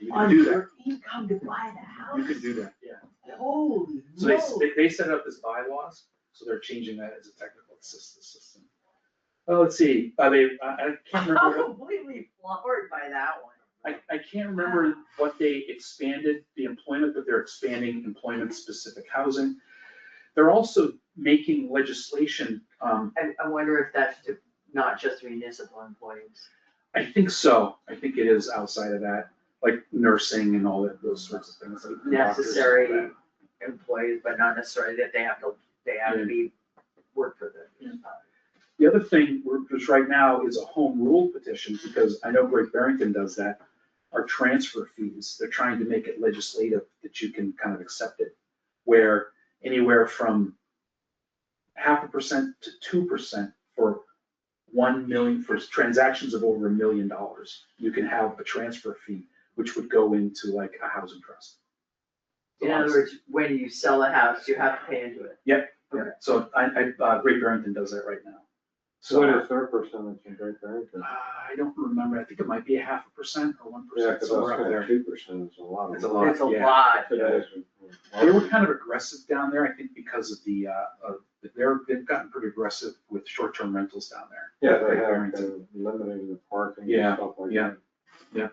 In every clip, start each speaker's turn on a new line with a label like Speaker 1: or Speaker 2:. Speaker 1: You can
Speaker 2: on
Speaker 1: do that,
Speaker 2: your income to buy the house.
Speaker 1: you can do that, yeah.
Speaker 2: Holy
Speaker 1: So they, s-
Speaker 2: moly.
Speaker 1: they, they set up this bylaws, so they're changing that as a technical assistance system. Oh, let's see, I mean, I, I can't
Speaker 2: I'm
Speaker 1: remember,
Speaker 2: completely floored by that
Speaker 1: I,
Speaker 2: one.
Speaker 1: I can't remember what they expanded the employment, but they're expanding employment-specific housing. They're also making legislation, um,
Speaker 2: I, I wonder if that's to, not just municipal employees.
Speaker 1: I think so, I think it is outside of that, like nursing and all that, those sorts of things. like doctors and all that.
Speaker 2: Necessary. Employees, but not necessarily that they have to, they have to be, work for the.
Speaker 1: The other thing, we're- which right now is a home rule petition, because I know Great Barrington does that, are transfer fees. They're trying to make it legislative that you can kind of accept it, where anywhere from half a percent to two percent for one million, for transactions of over a million dollars, you can have a transfer fee, which would go into like a housing trust.
Speaker 2: In other words, when you sell a house, you have to pay into it.
Speaker 1: Yeah, So I, I, uh, Great Barrington does that right now. So.
Speaker 3: What is their percentage in Great Barrington?
Speaker 1: Uh, I don't remember, I think it might be a half a percent or one
Speaker 3: Yeah,
Speaker 1: percent,
Speaker 3: cause I was
Speaker 1: somewhere up
Speaker 3: gonna,
Speaker 1: there.
Speaker 3: two percent is a lot. of
Speaker 1: It's a
Speaker 3: money.
Speaker 1: lot,
Speaker 2: It's a
Speaker 1: yeah.
Speaker 2: lot.
Speaker 3: Today's-
Speaker 1: They were kind of aggressive down there, I think because of the, uh, of, they're, they've gotten pretty aggressive with short-term rentals down there.
Speaker 3: Yeah, they
Speaker 1: Great
Speaker 3: have
Speaker 1: Barrington.
Speaker 3: been limiting the parking
Speaker 1: Yeah,
Speaker 3: and stuff like that.
Speaker 1: yeah.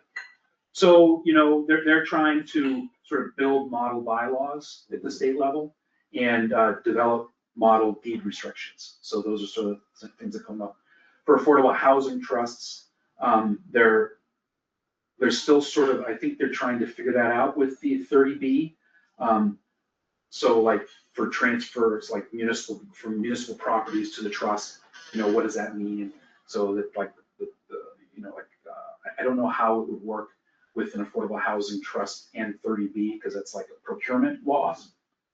Speaker 1: So, you know, they're, they're trying to sort of build model bylaws at the state level and uh, develop model deed restrictions. So those are sort of some things that come up. For affordable housing trusts, um, they're, they're still sort of, I think they're trying to figure that out with the thirty B. Um, So like for transfers, like municipal, from municipal properties to the trust, you know, what does that mean? So that like, the, the, you know, like, uh, I, I don't know how it would work with an affordable housing trust and thirty B, because that's like procurement laws.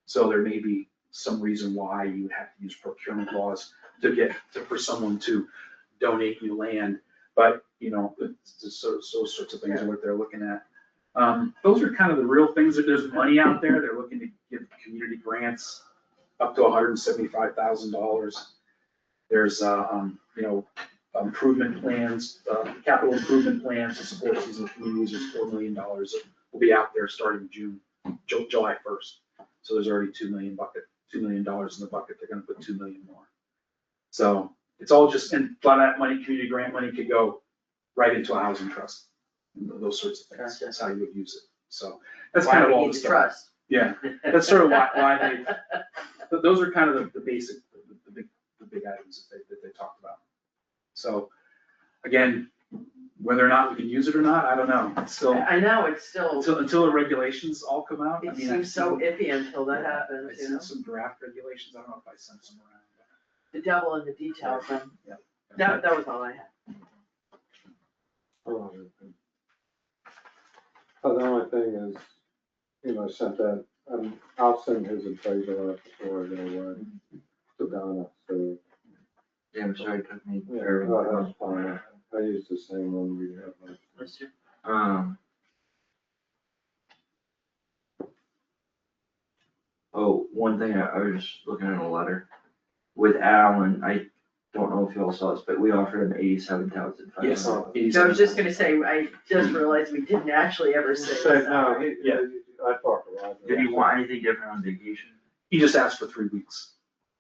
Speaker 1: So there may be some reason why you would have to use procurement laws to get, to- for someone to donate you land. But, you know, it's just so, so sorts of things are what they're looking at. Um, those are kind of the real things, that there's money out there, they're looking to give community grants up to hundred and seventy-five thousand dollars. There's, uh, um, you know, improvement plans, uh, capital improvement plans to support seasonal communities is four million dollars. Will be out there starting June, Ju- July first. So there's already two million bucket, two million dollars in the bucket. They're gonna put two million more. So it's all just, and a lot of that money, community grant money could go right into a housing trust. and Those sorts of things.
Speaker 2: Gotcha.
Speaker 1: That's how you would use it. So that's kind of all the stuff. Yeah,
Speaker 2: Why we need the trust.
Speaker 1: that's sort of why, why they, th- those are kind of the, the basic, the, the big, the big items that they, that they talked about. So, again, whether or not we can use it or not, I don't know, It's still,
Speaker 2: I know, it's still,
Speaker 1: until, until the regulations all come out, I
Speaker 2: it
Speaker 1: mean, I
Speaker 2: seems so
Speaker 1: sent,
Speaker 2: iffy until that
Speaker 1: I
Speaker 2: happens, you know?
Speaker 1: sent some draft regulations, I don't know if I sent some around.
Speaker 2: The devil in the details, and
Speaker 1: but-
Speaker 2: that, that was all I had.
Speaker 3: Oh, okay. But the only thing is, you know, I sent that, um, I'll send his appraisal out before I go away to Donna, so.
Speaker 4: Damn, sorry, it took me
Speaker 3: yeah, that-
Speaker 4: forever.
Speaker 3: that's fine. I use the same one we have.
Speaker 2: Let's do-
Speaker 4: Um. Oh, one thing, I I was just looking at a letter with Alan, I don't know if y'all saw this, but we offered him eighty-seven thousand five
Speaker 1: Yes,
Speaker 4: hundred.
Speaker 3: Oh.
Speaker 1: it is-
Speaker 2: So I was just gonna say, I just realized we didn't actually ever say
Speaker 3: Say, no,
Speaker 2: salary.
Speaker 3: he,
Speaker 1: Yeah.
Speaker 3: I talked to Roger.
Speaker 4: Did he want anything different on vacation?
Speaker 1: He just asked for three weeks,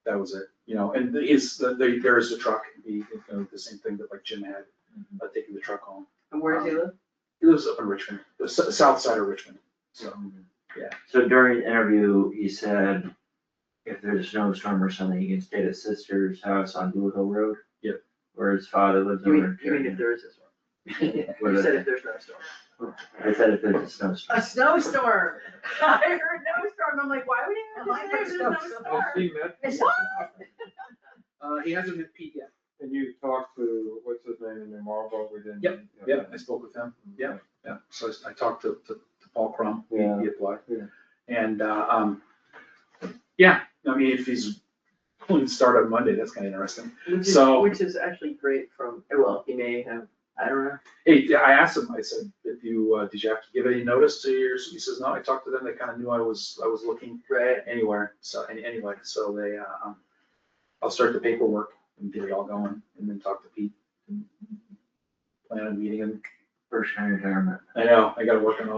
Speaker 1: that was it, you know, and the- is, the- the- there is the truck, the, you know, the same thing that like Jim had,
Speaker 2: Mm-hmm.
Speaker 1: uh, taking the truck home.
Speaker 2: And where does he live?
Speaker 1: He lives up in Richmond, the s- south side of Richmond, so.
Speaker 4: So during the interview, he said if there's a snowstorm or something, he can stay at his sister's house on Blue Hill Road.
Speaker 1: Yep.
Speaker 4: Where his father lives
Speaker 2: You
Speaker 4: over
Speaker 2: mean,
Speaker 4: in.
Speaker 2: you mean if there is this one?
Speaker 4: What
Speaker 2: You
Speaker 4: is
Speaker 2: said
Speaker 4: it?
Speaker 2: if there's no storm.
Speaker 4: I said if there's a snowstorm.
Speaker 2: A snowstorm. I heard no storm. I'm like, why would anyone say there's no storm?
Speaker 3: Has he met?
Speaker 2: It's
Speaker 1: Uh, he hasn't hit Pete yet.
Speaker 3: And you talked to, what's his name in New Marlboro, uh, we didn't.
Speaker 1: Yeah, I spoke with him. Yeah. Yeah, so I s- I talked to, to to Paul Crum, he
Speaker 3: Yeah.
Speaker 1: he applied.
Speaker 3: Yeah.
Speaker 1: And, uh, um, yeah, I mean, if he's willing to start on Monday, that's kind of interesting.
Speaker 2: Which is,
Speaker 1: So-
Speaker 2: which is actually great from, well, he may have, I don't know.
Speaker 1: Hey, I asked him, I said, if you, uh, did you have to give any notice to yours? He says, no, I talked to them, they kind of knew I was, I was looking
Speaker 2: Right.
Speaker 1: anywhere, so, any- anyway, so they, uh, um, I'll start the paperwork and get it all going and then talk to Pete. Plan on meeting him.
Speaker 4: First time retirement.
Speaker 1: I know, I gotta work on all